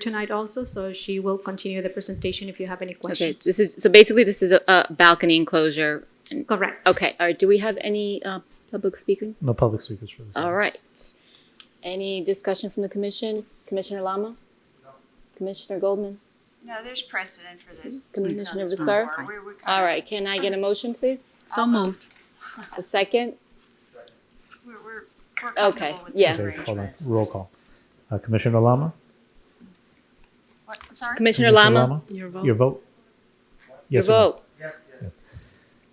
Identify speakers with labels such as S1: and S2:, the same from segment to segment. S1: tonight also, so she will continue the presentation if you have any
S2: Okay,
S1: questions.
S2: this is, so basically this is a, a balcony enclosure. and-
S1: Correct.
S2: Okay, all right, do we have any, uh, public speaking?
S3: No public speakers for this.
S2: All right. Any discussion from the commission? Commissioner Lama? Commissioner Goldman?
S4: No, there's precedent for
S2: Mm-hmm.
S4: this.
S2: Commissioner
S4: It's
S2: Viscara?
S4: before. We- we kinda-
S2: All right, can I get a motion, please?
S5: So moved.
S2: A second?
S4: We're, we're, we're
S2: Okay,
S4: comfortable with
S2: yeah.
S4: this
S3: Okay, hold on,
S4: arrangement.
S3: roll call. Uh, Commissioner Lama?
S4: What, I'm sorry?
S2: Commissioner Lama?
S5: Your
S3: Your
S5: vote?
S3: vote?
S2: Your
S3: Yes or no?
S2: vote?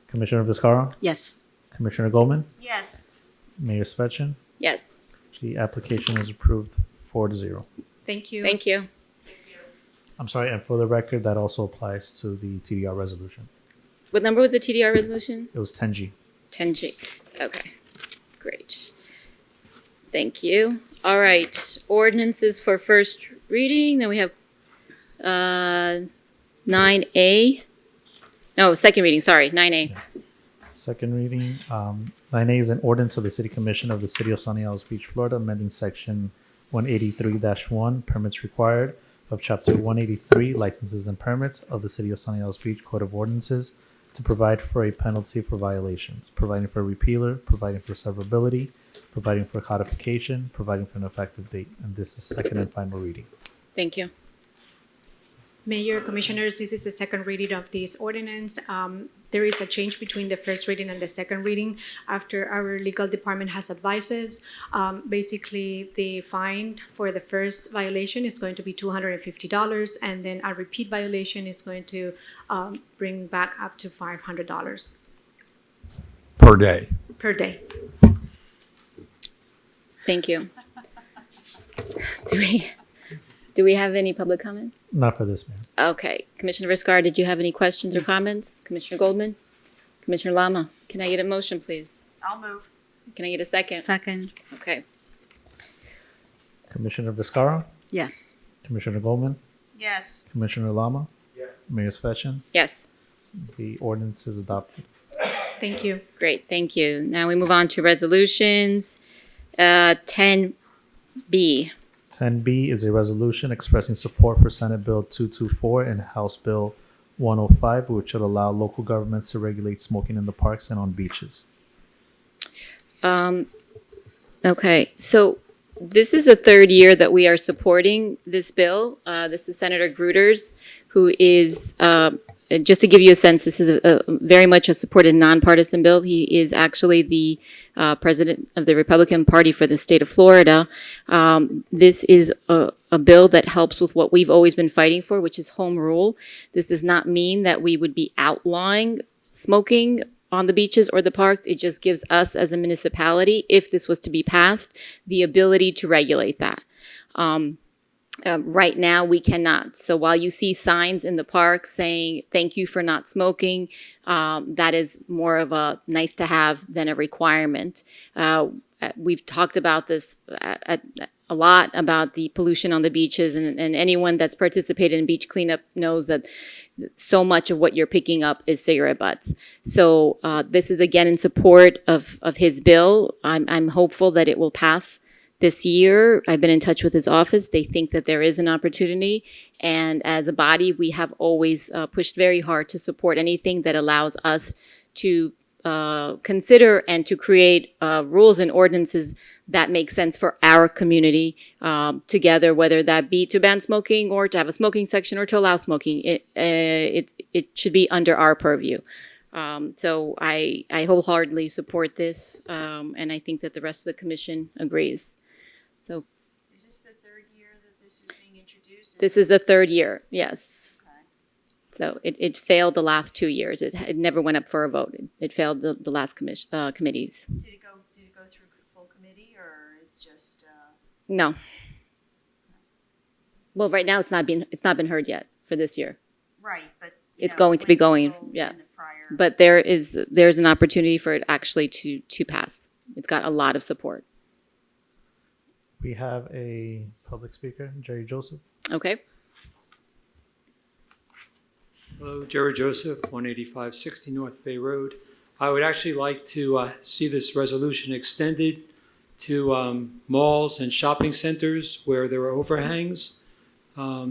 S3: Commissioner Viscara?
S5: Yes.
S3: Commissioner Goldman?
S4: Yes,
S3: Mayor Svechin?
S2: Yes,
S3: The application is approved four to zero.
S1: Thank you.
S2: thank you.
S3: I'm sorry, and for the record, that also applies to the TDR resolution.
S2: What number was the TDR resolution?
S3: It was 10G.
S2: Ten G. Okay, great. Thank you. All right, ordinances for first reading, then we have, uh, nine A. No, second reading, sorry, nine A.
S3: Second reading, um, nine A is an ordinance of the City Commission of the City of Sunny Isles Beach, Florida, amending section one eighty-three one, permits required of chapter one eighty-three, licenses and permits of the City of Sunny Isles Beach Code of Ordinances to provide for a penalty for violations, providing for repealer, providing for severability, providing for codification, providing for an effective date, and this is second and final reading.
S2: Thank you.
S1: Mayor, Commissioners, this is the second reading of this ordinance. Um, There is a change between the first reading and the second reading after our legal department has advised us. Um, Basically, the fine for the first violation is going to be two hundred and fifty dollars, and then a repeat violation is going to um, bring back up to five hundred dollars
S6: per day.
S1: per day.
S2: Thank you. Do we, do we have any public comment?
S3: Not for this, man.
S2: Okay, Commissioner Viscar, did you have any questions or comments? Commissioner Goldman? Commissioner Lama, can I get a motion, please?
S4: I'll move.
S2: Can I get a second?
S5: Second.
S2: Okay,
S3: Commissioner Viscara,
S5: Yes.
S3: Commissioner Goldman,
S4: Yes,
S3: Commissioner Lama, Mayor Svechen,
S2: yes,
S3: the ordinance is adopted.
S1: Thank you.
S2: great, thank you. Now we move on to resolutions. Uh, ten B,
S3: 10B is a resolution expressing support for Senate Bill 224 and House Bill 105, which would allow local governments to regulate smoking in the parks and on beaches.
S2: um, okay, so this is the third year that we are supporting this bill. Uh, this is Senator Gruters, who is, uh, just to give you a sense, this is a, a very much a supported nonpartisan bill. He is actually the uh, president of the Republican Party for the state of Florida. Um, this is a, a bill that helps with what we've always been fighting for, which is home rule. This does not mean that we would be outlawing smoking on the beaches or the parks. It just gives us as a municipality, if this was to be passed, the ability to regulate that. Um, right now, we cannot. So while you see signs in the park saying, thank you for not smoking, um, that is more of a nice to have than a requirement. Uh, uh, we've talked about this a, a- a lot about the pollution on the beaches, and, and anyone that's participated in beach cleanup knows that so much of what you're picking up is cigarette butts. So uh, this is again in support of, of his bill. I'm, I'm hopeful that it will pass this year. I've been in touch with his office. They think that there is an opportunity. And as a body, we have always uh, pushed very hard to support anything that allows us to uh, consider and to create uh, rules and ordinances that make sense for our community um, together, whether that be to ban smoking or to have a smoking section or to allow smoking. It, uh, it, it should be under our purview. Um, so I, I wholeheartedly support this, um, and I think that the rest of the commission agrees. So
S4: is this the third year that this is being introduced?
S2: this is the third year, yes.
S4: Okay.
S2: So it, it failed the last two years. It, it never went up for a vote. It, it failed the, the last commission, uh, committees.
S4: Did it go, did it go through full committee or it's just, uh,
S2: No. Well, right now it's not been, it's not been heard yet for this year.
S4: right, but. you
S2: It's
S4: know,
S2: going to be
S4: with the
S2: going,
S4: full and the
S2: yes.
S4: prior-
S2: But there is, there's an opportunity for it actually to, to pass. It's got a lot of support.
S3: We have a public speaker, Jerry Joseph.
S2: Okay?
S7: Hello, Jerry Joseph, 18560 North Bay Road. I would actually like to uh, see this resolution extended to um, malls and shopping centers where there are overhangs. Um,